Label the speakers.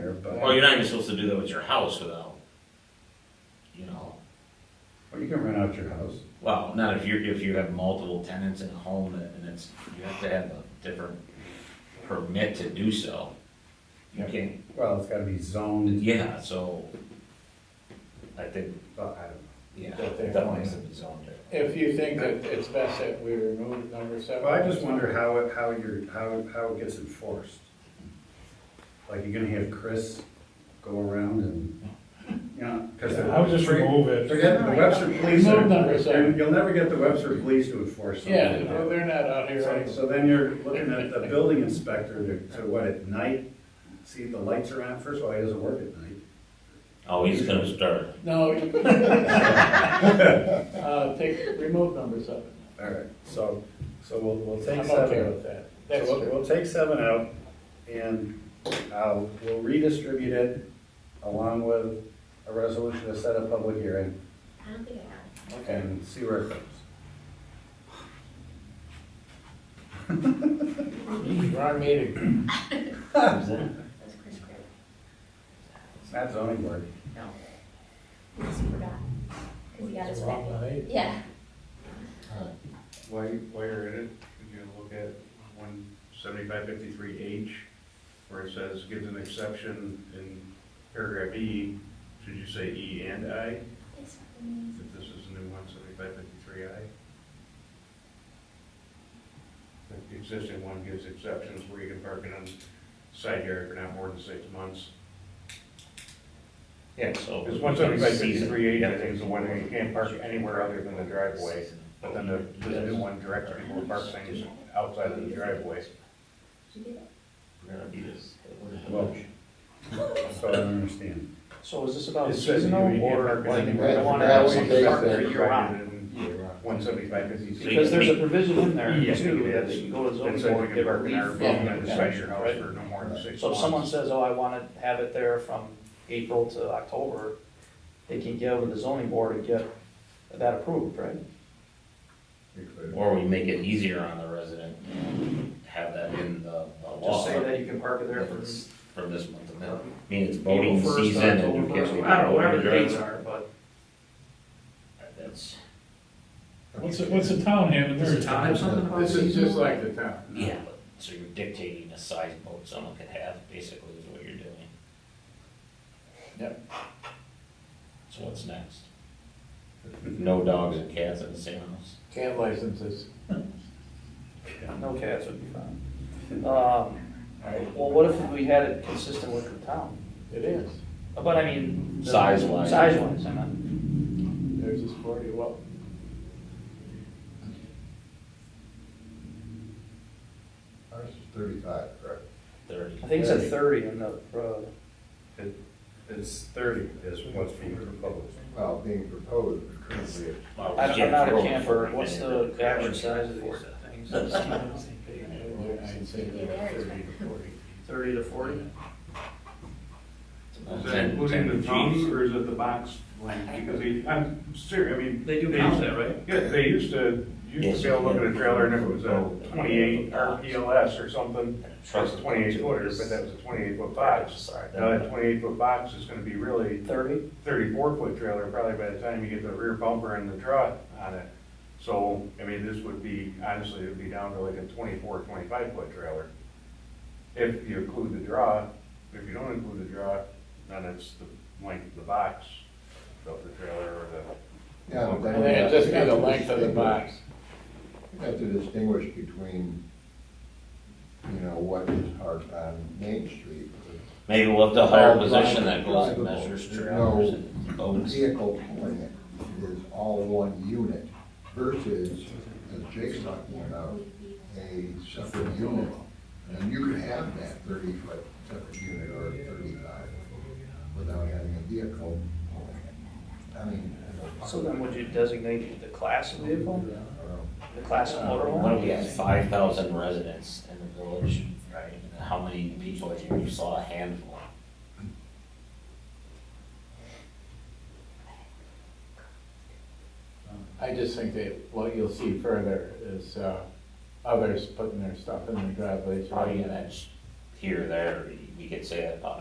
Speaker 1: Well, you're not even supposed to do that with your house without, you know,
Speaker 2: Or you can rent out your house.
Speaker 1: well, not if you're, if you have multiple tenants in a home that- and it's, you have to have a different permit to do so. You
Speaker 2: Yeah.
Speaker 1: can't,
Speaker 2: Well, it's gotta be zoned,
Speaker 1: yeah, so I think,
Speaker 2: but I don't
Speaker 1: yeah,
Speaker 3: That they-
Speaker 1: that one has to be zoned different.
Speaker 3: If you think that it's best that we remove number seven.
Speaker 2: know. Well, I just wonder how it, how you're, how, it- how it gets enforced. Like, you're gonna have Chris go around and, you know, cause.
Speaker 4: I would just remove it.
Speaker 2: Forget the Webster police,
Speaker 3: Remove number
Speaker 2: are-
Speaker 3: seven.
Speaker 2: you'll never get the Webster police to enforce something.
Speaker 3: Yeah,
Speaker 2: like
Speaker 3: well,
Speaker 2: that.
Speaker 3: they're not out here.
Speaker 2: So-
Speaker 3: anyway.
Speaker 2: So then you're looking at the building inspector to, to what, at night? See, the lights are on, first of all, he doesn't work at night.
Speaker 1: Oh, he's gonna start.
Speaker 3: No. you- Uh, take, remove number seven.
Speaker 2: All right, so, so we'll, we'll take
Speaker 3: I'm
Speaker 2: seven.
Speaker 3: okay with that. That's
Speaker 2: So we'll,
Speaker 3: true.
Speaker 2: we'll take seven out and, uh, we'll redistribute it along with a resolution to set a public hearing
Speaker 5: I don't think I got it.
Speaker 2: and see where it goes.
Speaker 3: Wrong meeting.
Speaker 5: That was Chris Craig.
Speaker 2: It's not zoning board.
Speaker 5: No. He just forgot. Because he got his back.
Speaker 3: Wrong night.
Speaker 5: Yeah.
Speaker 6: While, you- while you're at it, could you look at one seventy-five fifty-three H, where it says gives an exception in paragraph E, should you say E and I,
Speaker 5: It's amazing.
Speaker 6: if this is new one seventy-five fifty-three I? The existing one gives exceptions where you can park it on side yard for not more than six months.
Speaker 1: Yeah, so.
Speaker 6: Because one seventy-five fifty-three H, I think is the one where you can't park anywhere other than the driveway, but then the, the new one directs people to park things outside of the driveway.
Speaker 5: Did you get it?
Speaker 1: We're gonna do this.
Speaker 2: Well, So I don't understand.
Speaker 7: So is this about
Speaker 6: It says
Speaker 7: seasonal
Speaker 6: you can't
Speaker 7: or
Speaker 6: park
Speaker 7: like
Speaker 6: anywhere.
Speaker 7: they
Speaker 4: Right,
Speaker 7: want to
Speaker 4: that
Speaker 7: have
Speaker 4: was
Speaker 7: some
Speaker 4: the
Speaker 7: park there
Speaker 4: basic
Speaker 7: year round?
Speaker 6: One seventy-five fifty.
Speaker 7: Because there's a provision in there
Speaker 6: Yeah,
Speaker 7: too,
Speaker 6: yeah,
Speaker 7: that you can go to
Speaker 6: It
Speaker 7: zoning
Speaker 6: says
Speaker 7: board
Speaker 6: you
Speaker 7: and
Speaker 6: can
Speaker 7: give
Speaker 6: park in our
Speaker 7: relief.
Speaker 6: building on the
Speaker 7: from-
Speaker 6: side of your house for no more than six months.
Speaker 7: So if someone says, oh, I want to have it there from April to October, they can go to the zoning board and get that approved, right?
Speaker 1: Or we make it easier on the resident, have that in the the law.
Speaker 7: Just say that you can park it there for
Speaker 1: It's From this month to now.
Speaker 7: April
Speaker 1: I mean, it's voting
Speaker 7: first,
Speaker 1: season and you
Speaker 7: October
Speaker 1: can't.
Speaker 7: first,
Speaker 1: leave
Speaker 7: I don't know,
Speaker 1: it
Speaker 7: whatever the
Speaker 1: open.
Speaker 7: dates are, but.
Speaker 1: That's,
Speaker 4: What's, the- what's the town having
Speaker 1: Does the
Speaker 4: there?
Speaker 1: town have something about
Speaker 3: This is just like the town.
Speaker 1: yeah, but, uh, so you're dictating the size boat someone could have, basically is what you're doing.
Speaker 3: Yep.
Speaker 1: So what's next? No dogs and cats in the same house?
Speaker 3: Can't license this.
Speaker 7: No cats would be fine. Um, well, what if we had it consistent with the town?
Speaker 3: It is.
Speaker 7: But I mean.
Speaker 1: Size wise.
Speaker 7: Size wise, I meant.
Speaker 3: There's this forty, well,
Speaker 4: Ours is thirty-five, correct?
Speaker 1: Thirty.
Speaker 7: I think it's at thirty on the road.
Speaker 2: It's thirty is what's being proposed.
Speaker 4: Well, being proposed, currently at
Speaker 1: Well,
Speaker 7: I- I'm not a
Speaker 1: yeah,
Speaker 7: camper,
Speaker 1: for-
Speaker 7: what's the average size of these things?
Speaker 3: I'd say about thirty to forty.
Speaker 7: Thirty to forty?
Speaker 6: Is that
Speaker 1: Ten- ten
Speaker 6: including the
Speaker 1: Gs.
Speaker 6: tongue or is it the box length? Because they, I'm serious, I mean.
Speaker 7: They do
Speaker 6: used-
Speaker 7: count that, right?
Speaker 6: Yeah, they used to, used
Speaker 1: Yes.
Speaker 6: to be able to look at a trailer and if it was a twenty-eight RPLS or something, that's twenty-eight footer, but that was a twenty-eight foot box.
Speaker 1: Sorry.
Speaker 6: Now that twenty-eight foot Uh, box is gonna be really
Speaker 7: Thirty?
Speaker 6: thirty-four foot trailer probably by the time you get the rear bumper and the truck on it. So, I mean, this would be, honestly, it would be down to like a 24, 25 foot trailer. If you include the draw, if you don't include the draw, then it's the length of the box of the trailer or the.
Speaker 4: Yeah, but then
Speaker 3: And
Speaker 4: we
Speaker 3: then
Speaker 4: have-
Speaker 3: just
Speaker 4: we
Speaker 3: be
Speaker 4: have
Speaker 3: the
Speaker 4: to
Speaker 3: length of the
Speaker 4: distinguish-
Speaker 3: box.
Speaker 4: We have to distinguish between, you know, what is parked on Main Street.
Speaker 1: Maybe we'll have to hire a
Speaker 4: Or
Speaker 1: position that goes and
Speaker 4: drivable.
Speaker 1: measures
Speaker 4: No.
Speaker 1: trailers and boats.
Speaker 4: Vehicle pulling it is all one unit versus, as Jake's talking about, a separate unit. And you could have that thirty foot separate unit or thirty-five without having a vehicle pulling it. I mean.
Speaker 7: So then would you designate the class of vehicle, the class of
Speaker 1: What
Speaker 7: motorhome?
Speaker 1: if we have five thousand residents in the village, right? And How many people, do you you saw a handful?
Speaker 3: I just think that what you'll see further is, uh, others putting their stuff in their driveways.
Speaker 1: Oh, Probably, that's here, there, you could say that about